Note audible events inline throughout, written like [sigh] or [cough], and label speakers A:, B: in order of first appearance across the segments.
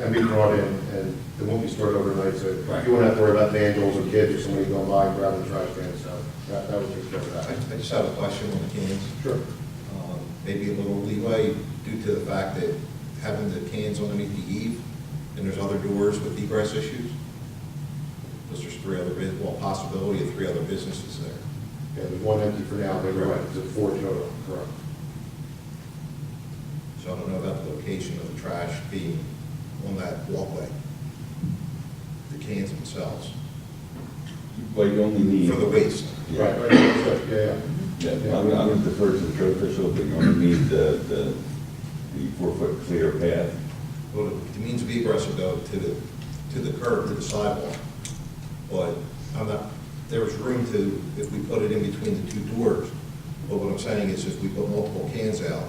A: and be brought in, and it won't be stored overnight, so
B: Right.
A: you won't have to worry about vandals or kids or somebody going by and grabbing the trash can, so that, that would take care of
B: I
A: that.
B: I just have a question on the cans.
A: Sure.
B: Um, Maybe a little leeway due to the fact that having the cans underneath the eave, and there's other doors with egress issues. Because there's three other, bus- well, possibility of three other businesses there.
A: Yeah, there's one empty for now, but you're right, it's a four total, correct?
B: So I don't know about the location of the trash being on that walkway. The cans themselves,
C: Well, you only need.
B: for the waste.
C: Yeah.
A: Right, right, right, yeah, yeah.
C: Yeah, I'm I'm gonna defer to the road official, but you're gonna need the, the, the four-foot clear path.
B: Well, the means of egress would go to the, to the curb, to the sidewalk. But I'm not, there's room to, if we put it in between the two doors. But what I'm saying is if we put multiple cans out,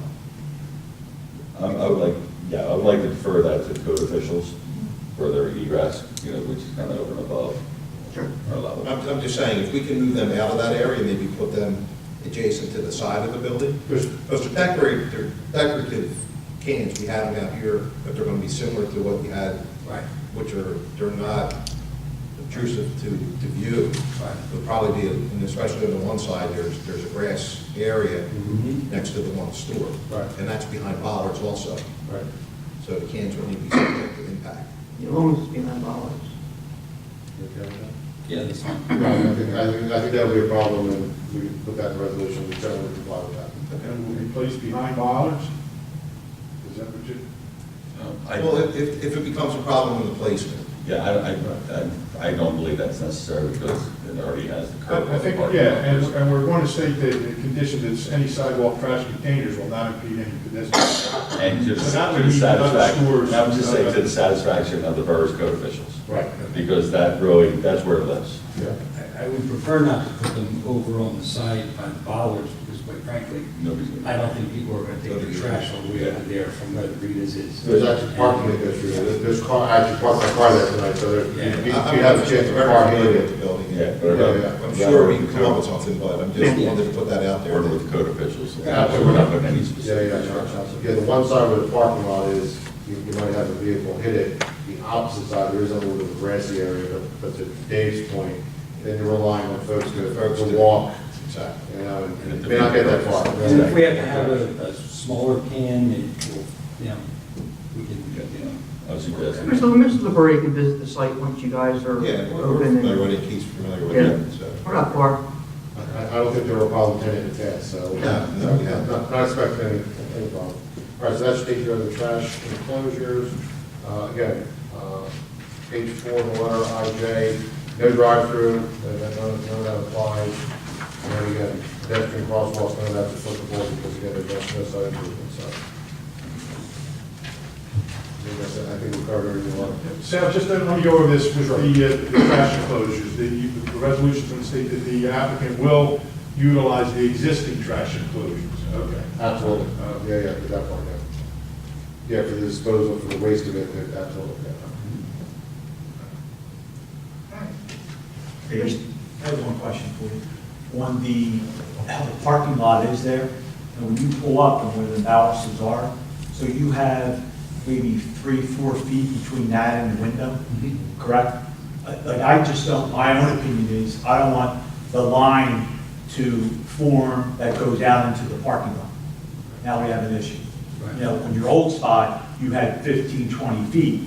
C: I, I would like, yeah, I would like to defer that to code officials for their egress, you know, which is kind of over and above our level.
B: I'm, I'm just saying, if we can move them out of that area, maybe put them adjacent to the side of the building.
A: There's,
B: Those are decorative, they're decorative cans, we had them out here, but they're gonna be similar to what we had.
D: Right.
B: Which are, they're not obtrusive to, to view.
D: Right.
B: But probably be, and especially on the one side, there's, there's a grass area
E: Mm-hmm.
A: Mhm.
B: next to the one store.
A: Right.
B: And that's behind bollards also,
A: right.
B: so the cans will need to be subject to impact.
F: The owners behind bollards.
A: You okay with that?
D: Yeah, that's fine.
A: No, I think, I think, I think that would be a problem, and we can put that in resolution, we certainly comply with that.
E: And will be placed behind bollards? Is that what you,
C: Um, I-
B: Well, if- if, if it becomes a problem in the placement,
C: Yeah, I, I- I, I don't believe that's necessary because it already has the curb.
E: I I think, yeah, and, and we're going to state that the condition that any sidewalk trash containers will not impede any pedestrian.
C: And just
E: So that
C: to
E: would
C: the
E: mean another
C: satisfaction,
E: store's-
C: I would just say to the satisfaction of the borough's code officials,
A: Right.
C: because that really, that's where it lives.
A: Yeah.
D: I- I would prefer not to put them over on the side by the bollards, because quite frankly,
C: Nobody's gonna.
D: I don't think people are gonna take their trash all the way out of there from where the Rita's is.
A: There's actually parking that goes through, there. there's, there's car, I actually parked my car there tonight, so there,
D: Yeah.
A: you you- you
B: I- I'm
A: have a chance to park
B: familiar
A: here.
B: with the building.
C: Yeah, whatever.
A: Yeah, yeah.
B: I'm sure we can come up with something, but I'm just wanted to put that out there.
C: Order with code officials.
A: Yeah.
C: We're not putting any
A: Yeah,
C: specific
A: yeah,
C: instructions.
A: yeah, yeah, the one side where the parking lot is, you, you might have a vehicle hit it, the opposite side, there is a little bit of grassy area, but, but to Dave's point, then you're relying on folks to,
B: Folks
A: to
B: to-
A: walk,
B: Exactly.
A: you know, and
C: And
A: and
C: the-
A: may not get that far.
D: And if we have to have a, a smaller can, it will, you know, we can, you know.
C: I was suggesting.
F: Mr. Mr. LeBury can visit the site once you guys are
B: Yeah, we're we're
F: open.
B: familiar
F: and-
B: with it, Keith's familiar with
F: Yeah.
B: it, so.
F: We're not far.
A: I, I don't think there were problems in it in the past, so.
B: No, no, we haven't.
A: Not not expecting any, any problem. All right, so that should take care of the trash enclosures. Uh, again, uh, page four, of the letter IJ, no drive-through, uh, that- none, none of that applies. And then again, pedestrian crosswalks, none of that's applicable because again, there's no side improvement, so. I think that's it. I think we covered everything we wanted to.
E: Sal, just let me go over this with the, uh, the trash enclosures. The, the resolution's going to state that the applicant will utilize the existing trash enclosures. Okay.
A: Absolutely. Um, Yeah, yeah, for that part, yeah. Yeah, for the disposal, for the waste of it, yeah, absolutely, yeah.
G: Hey, I have one question for you. On the, how the parking lot is there, and when you pull up and where the balances are, so you have maybe three, four feet between that and the window, correct? Uh, Like, I just don't, my own opinion is, I don't want the line to form that goes out into the parking lot. Now we have an issue. You know, on your old spot, you had 15, 20 feet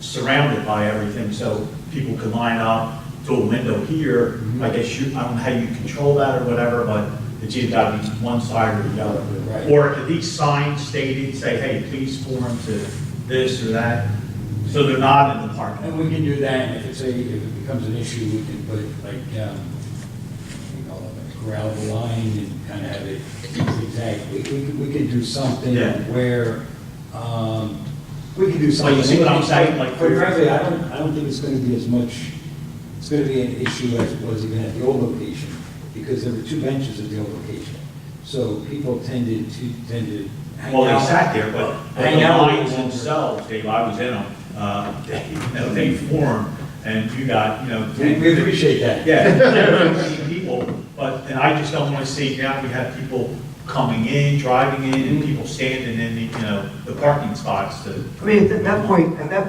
G: surrounded by everything, so people could line up to a window here. I guess you, I don't know how you control that or whatever, but it's either got to be one side or the other.
D: Right.
G: Or at least signs stated, say, hey, please form to this or that, so they're not in the parking lot.
D: And we can do that, and if it's a, if it becomes an issue, we can put like, um, you know, a gravel line and kind of have it zigzag. We, we could, we could do something
G: Yeah.
D: where, um, we could do something.
G: you see what I'm saying? Like-
D: Quite frankly, I don't, I don't think it's gonna be as much, it's gonna be an issue as it was even at the old location, because there were two benches at the old location. So people tended to, tended to hang out.
G: Well, they sat there, but but the
D: Hang out a little
G: lines
D: longer.
G: themselves, Dave, I was in them, uh, [laughs] they, you know, they formed, and you got, you know.
D: We we appreciate that.
G: Yeah, there were many people, but, and I just don't want to see now we have people coming in, driving in, and people standing in, the, you know, the parking spots to.
F: I mean, at that point, at that